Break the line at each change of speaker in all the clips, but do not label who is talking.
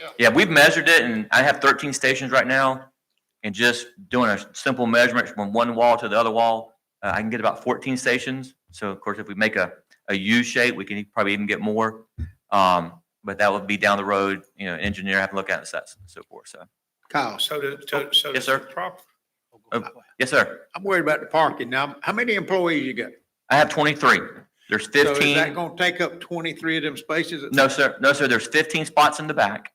Yeah.
Yeah, we've measured it and I have thirteen stations right now. And just doing a simple measurement from one wall to the other wall, uh, I can get about fourteen stations. So of course, if we make a, a U shape, we can probably even get more. Um, but that would be down the road, you know, engineer have to look at it, so that's- so forth, so.
Kyle, Uh,
So to, to, so.
Oh, Yes,
to
sir. Oh,
prop-
Yes, sir.
I'm worried about the parking. Now, how many employees you got?
I have twenty-three. There's
So is that
fifteen.
gonna take up twenty-three of them spaces?
No, sir. No, sir. There's fifteen spots in the back,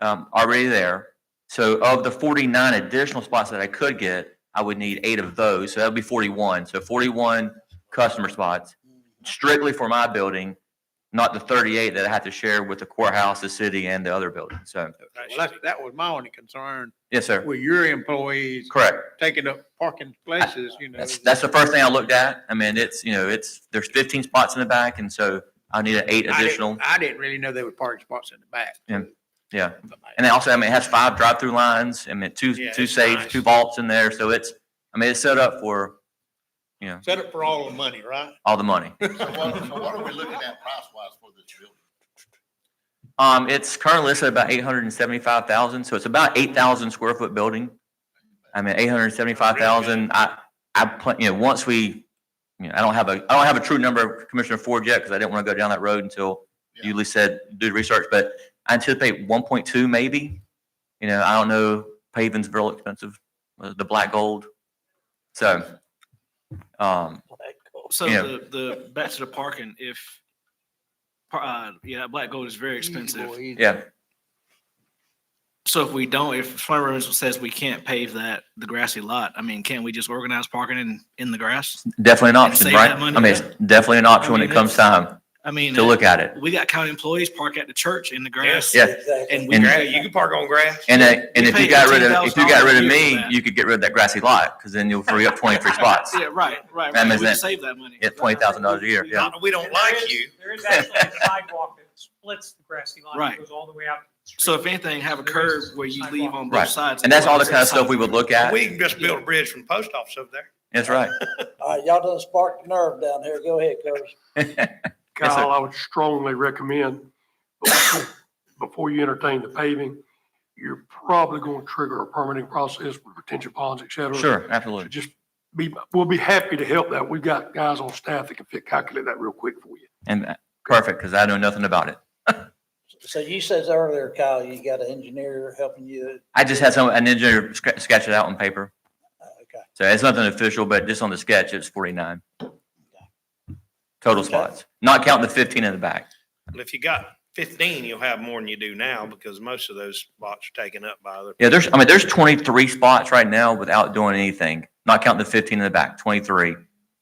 um, already there. So of the forty-nine additional spots that I could get, I would need eight of those. So that would be forty-one. So forty-one customer spots strictly for my building, not the thirty-eight that I have to share with the courthouse, the city and the other building. So,
Well, that's, that was my only concern.
yes, sir.
With your employees
Correct.
taking up parking places, you know.
That's, that's the first thing I looked at. I mean, it's, you know, it's, there's fifteen spots in the back and so I need an eight
I didn't-
additional.
I didn't really know there were parking spots in the back.
Yeah. Yeah. And also, I mean, it has five drive-through lines, I mean, two,
Yeah,
two
it's
safes,
nice.
two vaults in there, so it's, I mean, it's set up for
Set up for all the money, right?
all the money.
So what, so what are we looking at price wise for this building?
Um, it's currently listed about eight hundred and seventy-five thousand, so it's about eight thousand square foot building. I mean, eight hundred and seventy-five thousand, I, I, pla- you know, once we, you know, I don't have a, I don't have a true number, Commissioner Ford, yet, because I didn't want to go down that road until you at least said, do the research, but I anticipate one point two maybe. You know, I don't know, paving's real expensive, uh, the black gold, so. Um,
So
Yeah.
the, the, back to the parking, if, par- uh, yeah, that black gold is very expensive.
yeah,
So if we don't, if Flint Rivers says we can't pave that, the grassy lot, I mean, can't we just organize parking in, in the grass?
definitely an option,
save
right?
that
I
money,
mean, it's definitely an option when
mean,
it comes time
I mean,
to look at it.
we got county employees park at the church in the grass.
Yeah,
And we,
And-
Gra- You can park on grass.
And, I- and
We
if you
pay
got rid of, if you got rid of
$18,000 a
me,
year for that.
you could get rid of that grassy lot, because then you'll free up twenty-three spots.
yeah, right, right,
That
right.
means
We can
that-
save that money.
yeah, $20,000 a year, yeah.
Not that We don't like you.
There is actually a sidewalk that splits the grassy lot.
Right.
It goes all the way out. to the
So if
street.
anything, have a
There is
curb where you leave
sidewalk.
on
Right.
both sides.
And that's all the kind of stuff we would look at.
We can just build a bridge from the post office over there.
That's right.
All right, y'all done sparked the nerve down here. Go ahead, Coach.
Yes, sir.
Kyle, I would strongly recommend, before you entertain the paving, you're probably going to trigger a permitting process with retention ponds, et cetera.
Sure,
So
absolutely.
Just be, we'll be happy to help that. We've got guys on staff that can fit, calculate that real quick for you.
And uh, perfect, because I know nothing about it.
So you says earlier, Kyle, you got an engineer helping you.
I just had some, an engineer sc- sketch it out on paper.
Uh, Okay.
So it's nothing official, but just on the sketch, it's forty-nine. Total spots, not counting the fifteen in the back.
And if you got fifteen, you'll have more than you do now because most of those spots are taken up by other.
Yeah, there's, I mean, there's twenty-three spots right now without doing anything, not counting the fifteen in the back, twenty-three.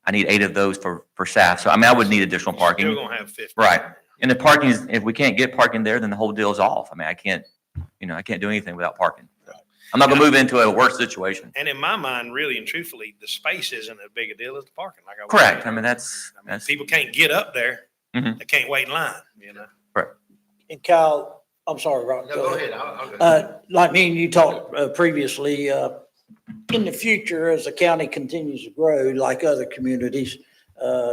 I need eight of those for, for staff. So I mean, I would need additional parking.
You're gonna have fifteen.
Right. And the parking is, if we can't get parking there, then the whole deal's off. I mean, I can't, you know, I can't do anything without parking. I'm not gonna move into a worse situation.
And in my mind, really and truthfully, the space isn't as big a deal as the parking. Like I was
Correct. I
saying.
mean, that's,
I mean,
that's,
people can't get up there.
Mhm.
They can't wait in line, you know?
And Kyle, I'm sorry, Rob.
No, go ahead, I'll, I'll go.
Uh, like me and you talked uh, previously, uh, in the future, as the county continues to grow, like other communities, uh,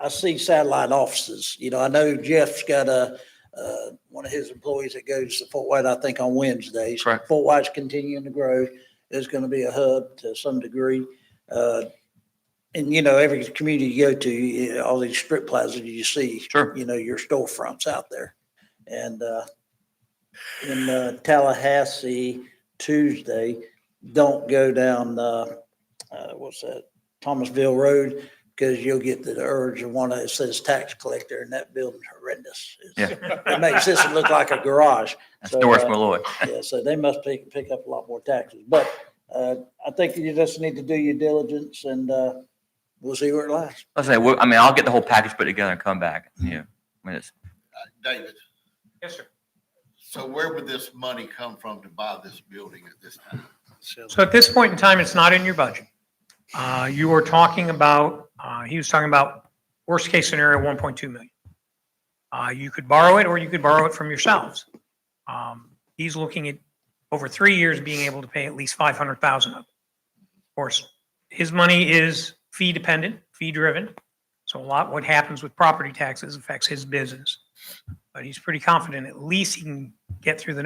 I see satellite offices. You know, I know Jeff's got a, uh, one of his employees that goes to Fort White, I think on Wednesdays.
Correct.
Fort White's continuing to grow. There's going to be a hub to some degree. Uh, and you know, every community you go to, you- all these strip plazas you see.
Sure.
You know, your storefronts out there. And, uh, in uh, Tallahassee Tuesday. Don't go down, uh, uh, what's that, Thomasville Road, because you'll get the urge of one that says tax collector and that building's horrendous. It's- It makes this look like a garage.
that's
So,
Norris
uh,
Malloy.
Yeah, so they must pick, pick up a lot more taxes. But uh, I think you just need to do your diligence and uh, we'll see where it lasts.
Let's say, well, I mean, I'll get the whole package put together and come back, you know. I mean, it's,
Uh, David,
Yes, sir.
so where would this money come from to buy this building at this time?
So at this point in time, it's not in your budget. Uh, You were talking about, uh, he was talking about worst-case scenario, 1.2 million. Uh, You could borrow it, or you could borrow it from yourselves. Um, He's looking at, over three years, being able to pay at least 500,000 of it. Of course, his money is fee-dependent, fee-driven, so a lot what happens with property taxes affects his business. But he's pretty confident at least he can get through the